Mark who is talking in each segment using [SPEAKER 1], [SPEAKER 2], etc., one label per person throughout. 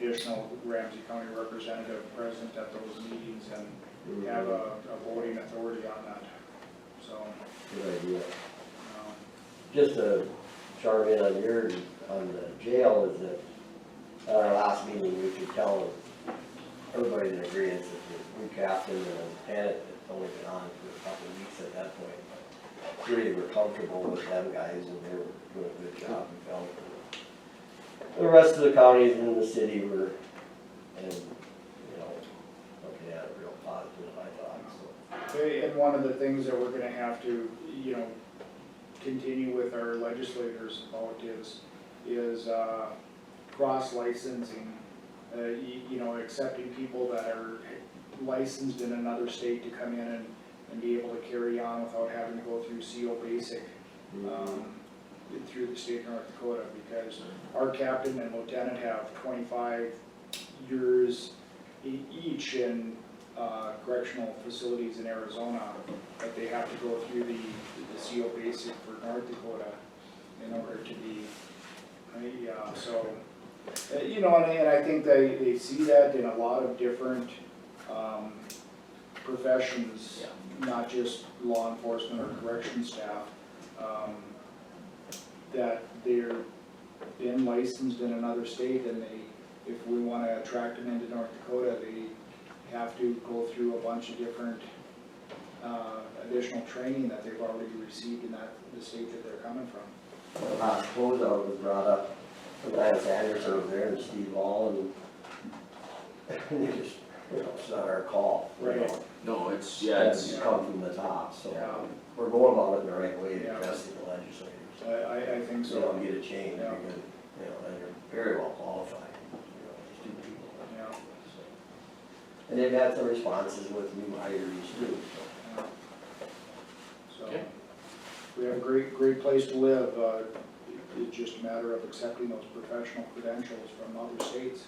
[SPEAKER 1] additional Ramsey County representative present at those meetings and have a, a voting authority on that. So,
[SPEAKER 2] Good idea.
[SPEAKER 1] um,
[SPEAKER 2] Just a chime in on your, on the jail is that, at our last meeting, we could tell everybody's in agreement that we captain and lieutenant, it's only been on for a couple of weeks at that point, but really we're comfortable with them guys and they were doing a good job, we felt. The rest of the counties in the city were, and, you know, looking at it real positive, I thought, so.
[SPEAKER 1] Okay, eh, And one of the things that we're gonna have to, you know, continue with our legislators about is, is, uh, cross licensing. Uh, you, you know, accepting people that are licensed in another state to come in and, and be able to carry on without having to go through CO basic, um, through the state of North Dakota, because our captain and lieutenant have twenty-five years e- each in uh, correctional facilities in Arizona, but they have to go through the, the CO basic for North Dakota in order to be, yeah, so, uh, you know, and, and I think they, they see that in a lot of different, um, professions, not just law enforcement or corrections staff, um, that they're been licensed in another state and they, if we wanna attract them into North Dakota, they have to go through a bunch of different, uh, additional training that they've already received in that, the state that they're coming from.
[SPEAKER 2] The last closeout Uh, was brought up, Lance Anderson was there and Steve Ball and they just, you know, it's not our call. you know.
[SPEAKER 1] Right.
[SPEAKER 3] No, it's, yeah, it's,
[SPEAKER 2] It's come from the top,
[SPEAKER 1] Yeah.
[SPEAKER 2] so we're going about it the right way,
[SPEAKER 1] Yeah.
[SPEAKER 2] addressing the legislators.
[SPEAKER 1] I, I, I think
[SPEAKER 2] So you don't
[SPEAKER 1] so,
[SPEAKER 2] get a change,
[SPEAKER 1] Yeah.
[SPEAKER 2] because, you know, and you're very well qualified, you know, these two people.
[SPEAKER 1] Yeah.
[SPEAKER 2] So. And they've had some responses with new hires too, so.
[SPEAKER 1] yeah. So,
[SPEAKER 3] Okay.
[SPEAKER 1] we have a great, great place to live, uh, it- it's just a matter of accepting those professional credentials from other states.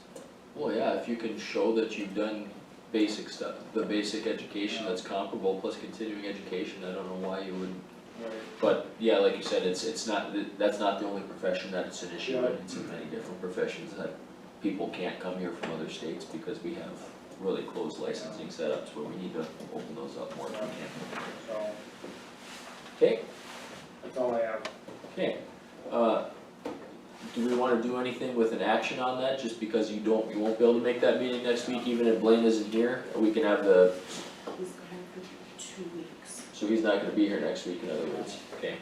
[SPEAKER 3] well, yeah, if you can show that you've done basic stuff, the basic education
[SPEAKER 1] Yeah.
[SPEAKER 3] that's comparable plus continuing education, I don't know why you wouldn't.
[SPEAKER 1] Right.
[SPEAKER 3] But, yeah, like you said, it's, it's not, th- that's not the only profession that it's an issue,
[SPEAKER 1] Yeah.
[SPEAKER 3] in. it's in many different professions that people can't come here from other states because we have really closed licensing setups where we need to open those up more if we can.
[SPEAKER 1] So,
[SPEAKER 3] Okay,
[SPEAKER 1] that's all I have.
[SPEAKER 3] Okay, uh, do we wanna do anything with an action on that, just because you don't, you won't be able to make that meeting next week, even if Blaine isn't here? We can have the,
[SPEAKER 4] He's gone for two weeks.
[SPEAKER 3] so he's not gonna be here next week, in other words, okay?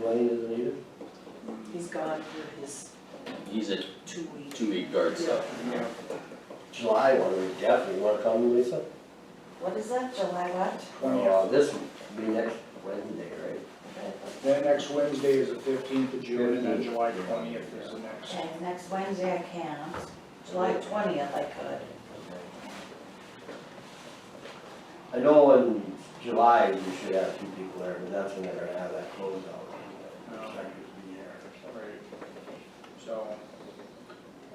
[SPEAKER 2] Blaine isn't either?
[SPEAKER 1] Mm,
[SPEAKER 4] He's gone for his
[SPEAKER 3] He's a
[SPEAKER 4] two weeks.
[SPEAKER 3] two-week guard stuff.
[SPEAKER 1] Yeah.
[SPEAKER 2] July one, we definitely wanna come, Lisa?
[SPEAKER 4] What is that, July what?
[SPEAKER 1] Twenty,
[SPEAKER 2] Uh, This will be next Wednesday, right?
[SPEAKER 1] Then next Wednesday is the fifteenth of June, and then July twentieth is the next.
[SPEAKER 4] Okay, next Wednesday I can't, July twentieth I could.
[SPEAKER 2] I know in July you should have two people there, but that's when they're gonna have that closeout. you know,
[SPEAKER 1] Oh.
[SPEAKER 2] inspectors be there or
[SPEAKER 1] Right. So,
[SPEAKER 2] something.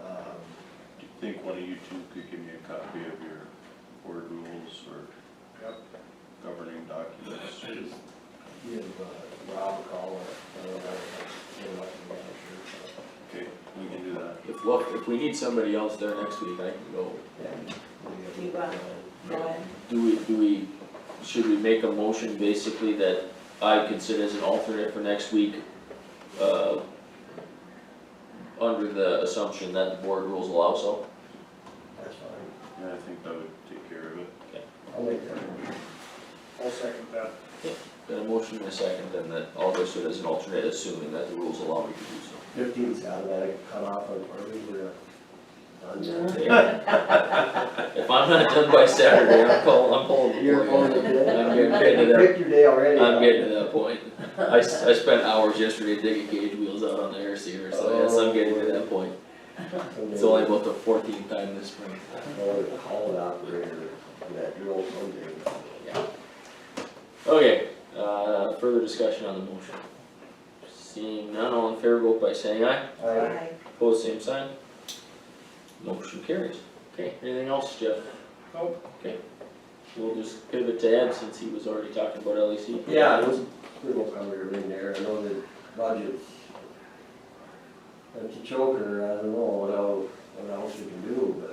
[SPEAKER 2] Um,
[SPEAKER 5] Do you think one of you two could give me a copy of your board rules or
[SPEAKER 1] yep,
[SPEAKER 5] governing documents?
[SPEAKER 2] Give uh, Rob a call or, I don't know, get him up and down, sure.
[SPEAKER 5] Okay, we can do that.
[SPEAKER 3] If, look, if we need somebody else there next week, I can go.
[SPEAKER 2] Yeah, we
[SPEAKER 4] You
[SPEAKER 2] have,
[SPEAKER 4] got-
[SPEAKER 2] uh,
[SPEAKER 4] Going,
[SPEAKER 3] Do we, do we, should we make a motion basically that I consider as an alternate for next week? Uh, under the assumption that the board rules allow so?
[SPEAKER 2] That's fine,
[SPEAKER 5] Yeah, I think that would take care of it.
[SPEAKER 2] I'll make that.
[SPEAKER 1] I'll second that.
[SPEAKER 3] Got a motion and a second, and that all goes to as an alternate, assuming that the rules allow me to do so.
[SPEAKER 2] Fifteen's automatic cutoff on, or we were done then.
[SPEAKER 3] If I'm not done by Saturday, I'm calling, I'm calling the
[SPEAKER 2] You're
[SPEAKER 3] board.
[SPEAKER 2] going to do
[SPEAKER 3] I'm
[SPEAKER 2] it?
[SPEAKER 3] getting to that,
[SPEAKER 2] Picked your day already. huh?
[SPEAKER 3] I'm getting to that point. I, s- I spent hours yesterday digging cage wheels out on the air seater, so yes, I'm getting to that point. It's only about the fourteenth time this spring.
[SPEAKER 2] Or call an operator, that drill someday.
[SPEAKER 3] Okay, uh, further discussion on the motion. Seeing none, all in favor, vote by saying aye.
[SPEAKER 2] I,
[SPEAKER 4] Aye.
[SPEAKER 3] Pose same sign. Motion carries. Okay, anything else, Jeff?
[SPEAKER 1] Nope.
[SPEAKER 3] Okay. We'll just pivot to Ed since he was already talking about E LEC.
[SPEAKER 2] yeah, it was pretty well covered everything there, I know the budgets. That's a choker, I don't know, what else you can do, but